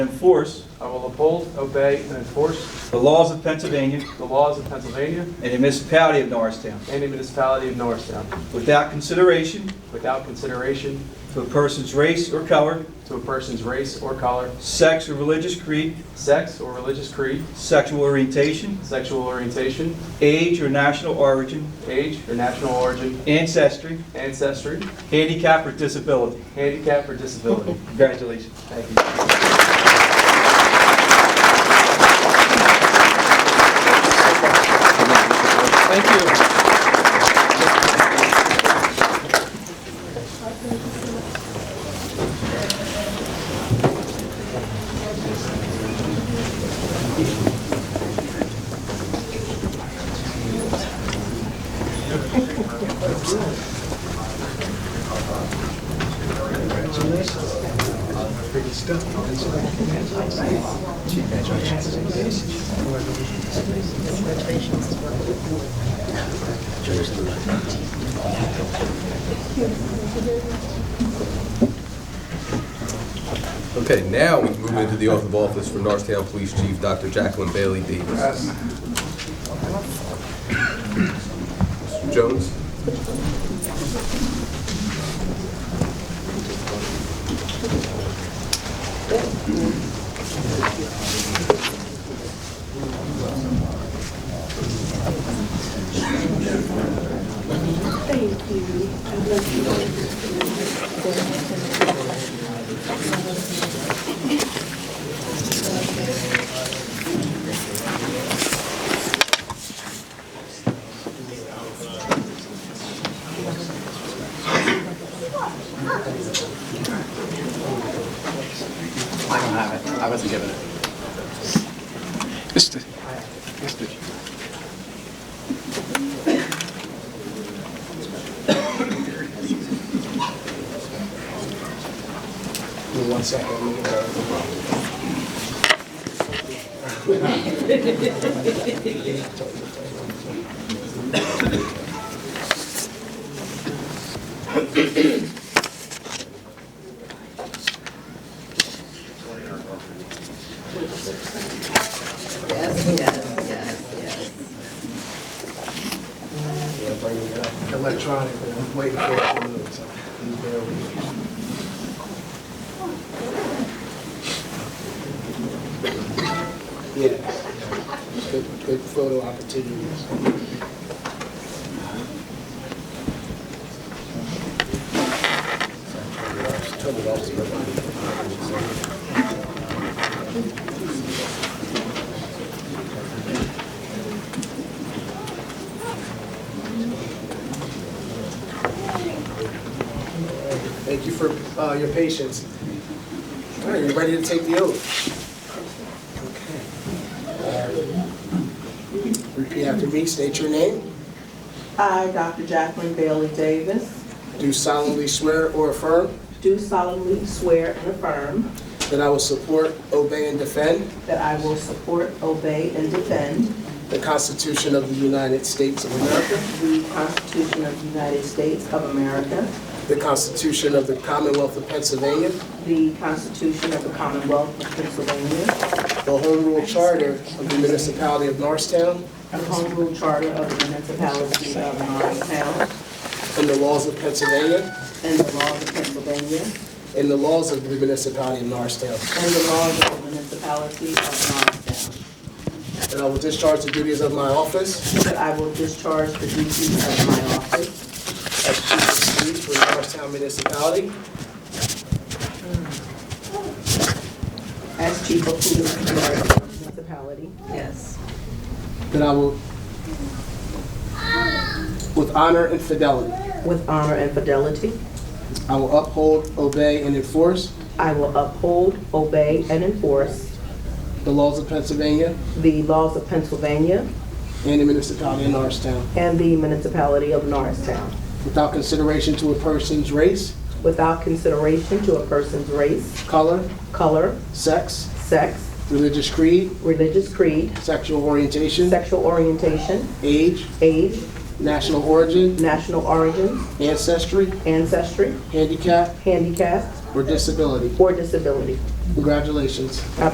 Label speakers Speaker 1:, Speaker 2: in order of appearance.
Speaker 1: enforce
Speaker 2: I will uphold, obey, and enforce
Speaker 1: the laws of Pennsylvania
Speaker 2: the laws of Pennsylvania
Speaker 1: and the municipality of Norristown
Speaker 2: and the municipality of Norristown
Speaker 1: without consideration
Speaker 2: without consideration
Speaker 1: to a person's race or color,
Speaker 2: to a person's race or color,
Speaker 1: sex or religious creed,
Speaker 2: sex or religious creed,
Speaker 1: sexual orientation,
Speaker 2: sexual orientation,
Speaker 1: age or national origin,
Speaker 2: age or national origin,
Speaker 1: ancestry,
Speaker 2: ancestry,
Speaker 1: handicap, or disability.
Speaker 2: handicap, or disability.
Speaker 1: Congratulations.
Speaker 2: Thank you.
Speaker 3: Okay, now we move into the oath of office for Norristown Police Chief Dr. Jacqueline Bailey Davis. Mr. Jones?
Speaker 4: I don't have it. I wasn't given it. Mr. Mr. Give me one second. I'm gonna grab the phone.
Speaker 5: Yes, yes, yes, yes.
Speaker 4: Yeah, bring it up. Electronic, but I'm waiting for it to move, so please bear with me. Yeah, good, good photo opportunities. Turn it off, so everybody- Thank you for uh, your patience. All right, you ready to take the oath? Okay. Repeat after me, state your name.
Speaker 5: I, Dr. Jacqueline Bailey Davis,
Speaker 4: Do solemnly swear or affirm
Speaker 5: do solemnly swear and affirm
Speaker 4: that I will support, obey, and defend
Speaker 5: that I will support, obey, and defend
Speaker 4: the Constitution of the United States of America,
Speaker 5: the Constitution of the United States of America,
Speaker 4: the Constitution of the Commonwealth of Pennsylvania,
Speaker 5: the Constitution of the Commonwealth of Pennsylvania,
Speaker 4: the Home Rule Charter of the Municipality of Norristown,
Speaker 5: the Home Rule Charter of the Municipality of Norristown,
Speaker 4: and the laws of Pennsylvania,
Speaker 5: and the laws of Pennsylvania,
Speaker 4: and the laws of the Municipality of Norristown.
Speaker 5: and the laws of the Municipality of Norristown,
Speaker 4: And I will discharge the duties of my office
Speaker 5: that I will discharge the duties of my office
Speaker 4: as chief of police for Norristown Municipality
Speaker 5: As chief of police of the municipality. Yes.
Speaker 4: that I will, with honor and fidelity,
Speaker 5: With honor and fidelity.
Speaker 4: I will uphold, obey, and enforce
Speaker 5: I will uphold, obey, and enforce
Speaker 4: the laws of Pennsylvania
Speaker 5: the laws of Pennsylvania
Speaker 4: and the municipality of Norristown
Speaker 5: and the municipality of Norristown
Speaker 4: without consideration to a person's race,
Speaker 5: without consideration to a person's race,
Speaker 4: color,
Speaker 5: color,
Speaker 4: sex,
Speaker 5: sex,
Speaker 4: religious creed,
Speaker 5: religious creed,
Speaker 4: sexual orientation,
Speaker 5: sexual orientation,
Speaker 4: age,
Speaker 5: age,
Speaker 4: national origin,
Speaker 5: national origin,
Speaker 4: ancestry,
Speaker 5: ancestry,
Speaker 4: handicap,
Speaker 5: handicap,
Speaker 4: or disability.
Speaker 5: or disability.
Speaker 4: Congratulations.